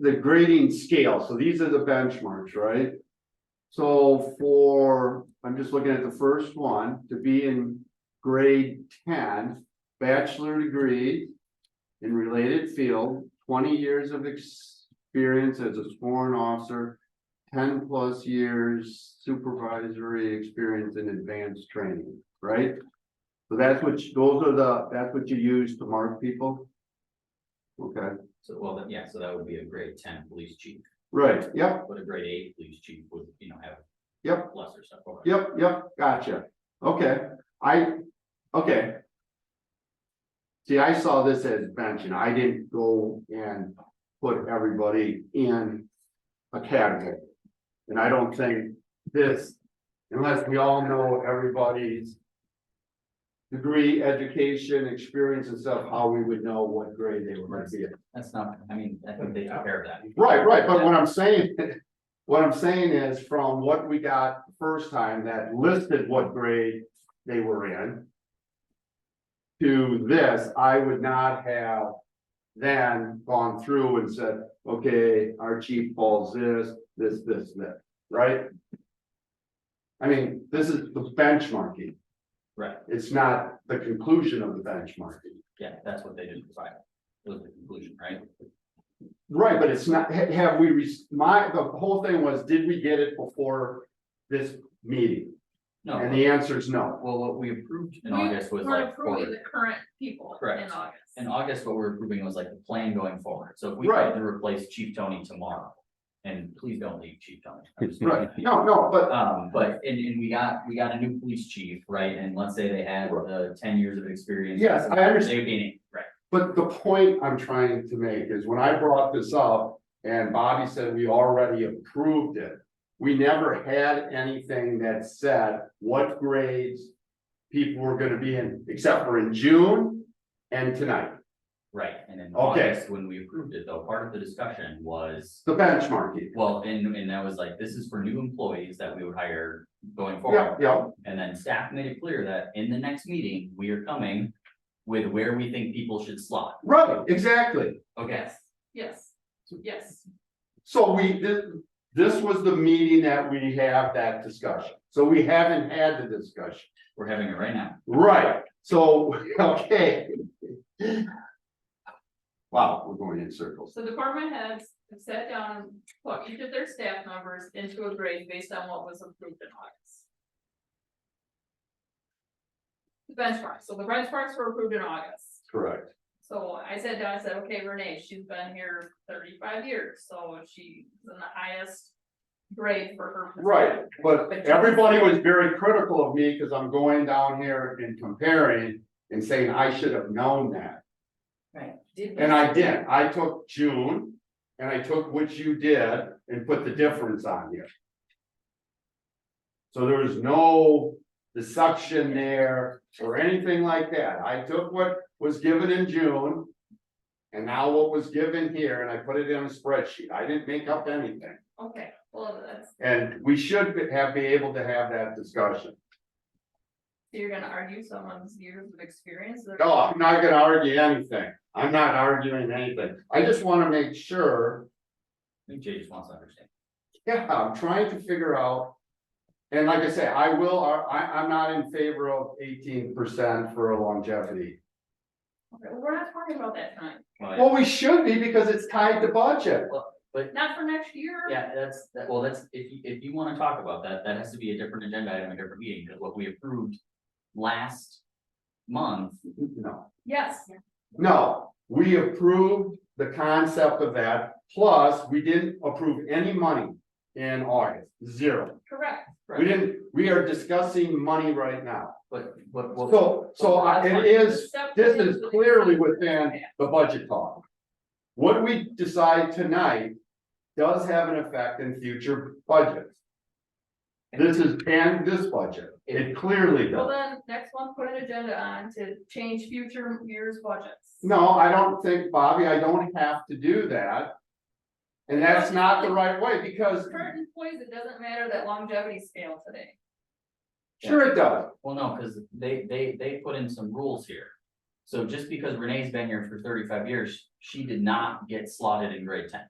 the grading scale, so these are the benchmarks, right? So for, I'm just looking at the first one, to be in grade ten, bachelor degree. In related field, twenty years of experience as a sworn officer. Ten plus years supervisory experience in advanced training, right? So that's what, you- those are the, that's what you use to mark people? Okay. So, well, then, yeah, so that would be a grade ten police chief, Right, yep, but a grade eight police chief would, you know, have. Yep. Lesser stuff. over. yep, yep, gotcha, okay, I, okay. See, I saw this as mentioned, I didn't go and put everybody in a category. And I don't think this, unless we all know everybody's. Degree, education, experience and stuff, how we would know what grade they were gonna be in. That's not, I mean, I think they took care of that. Right, right, but what I'm saying, what I'm saying is from what we got the first time that listed what grade they were in. To this, I would not have then gone through and said, okay, our chief falls this, this, this, this, right? I mean, this is the benchmarking, Right, it's not the conclusion of the benchmarking. yeah, that's what they did provide, was the conclusion, right? Right, but it's not, ha- have we, rec- my, the whole thing was, did we get it before this meeting? And No, the answer is no. well, what we approved in We August was We're like, approving forward. the current people in Correct. August. in August, what we we're approving was like the plan going forward, so if we Right. had to replace Chief Tony tomorrow. And please don't leave Chief Tony. I'm just- Right, no, no, but, Um, but, and, and we got, we got a new police chief, right, and let's say they had the ten years of experience. Yes, I understand. They would be, an eight, right, but the point I'm trying to make is when I brought this up and Bobby said we already approved it. We never had anything that said what grades people were gonna be in, except for in June and tonight, right, and in Okay. August, when we approved it, though, part of the discussion was. the benchmarking. Well, and, and that was like, this is for new employees that we would hire going Yeah, forward, yeah, and then staff made it clear that in the next meeting, we are coming. With where we think people should slot, right, exactly. okay, Yes, yes, yes. So we, this, this was the meeting that we have that discussion, so we haven't had the discussion, we're having it right now, right, so, okay. Wow, we're going in circles, So department heads have sat down and put each of their staff members into a grade based on what was approved in August. The benchmarks, so the benchmarks were approved in August. correct, So I sat down, I said, okay, Renee, she's been here thirty-five years, so she's in the highest grade for her. position. right, but But- everybody was very critical of me, cause I'm going down here and comparing. And saying I should have known that, Right. Did we- and I did, I took June, and I took what you did and put the difference on here. So there was no deception there or anything like that. I took what was given in June. And now what was given here and I put it in a spreadsheet. I didn't make up anything. Okay, well, that's, And we should be- have be able to have that discussion. you're gonna argue someone's years of experience? they're- No, I'm not gonna argue anything. I'm not arguing anything. I just wanna make sure I think Jay just wants to understand. Yeah, I'm trying to figure out. And like I say, I will, uh, I, I'm not in favor of eighteen percent for a longevity. Okay, well, We're not talking about that tonight, Well, Well, we should be because it's tied to budget. not for next year. Yeah, that's, that, well, that's, if you, if you wanna talk about that, that has to be a different agenda item, a different meeting, because what we approved last month, No, Yes, no, we approved the concept of that, plus we didn't approve any money in August, zero. correct, We didn't, we are discussing money right now. but, but, well, So, so I- it is Except This for is the- clearly within the budget talk. What we decide tonight does have an effect in future budgets. This is, and this budget, it clearly Well, does. then, next month, put an agenda on to change future years' budgets. No, I don't think, Bobby, I don't have to do that. And that's not the right way, because, Current employees, it doesn't matter that longevity scale today. sure it does, well, no, because they, they, they put in some rules here. So just because Renee's been here for thirty-five years, she did not get slotted in grade ten.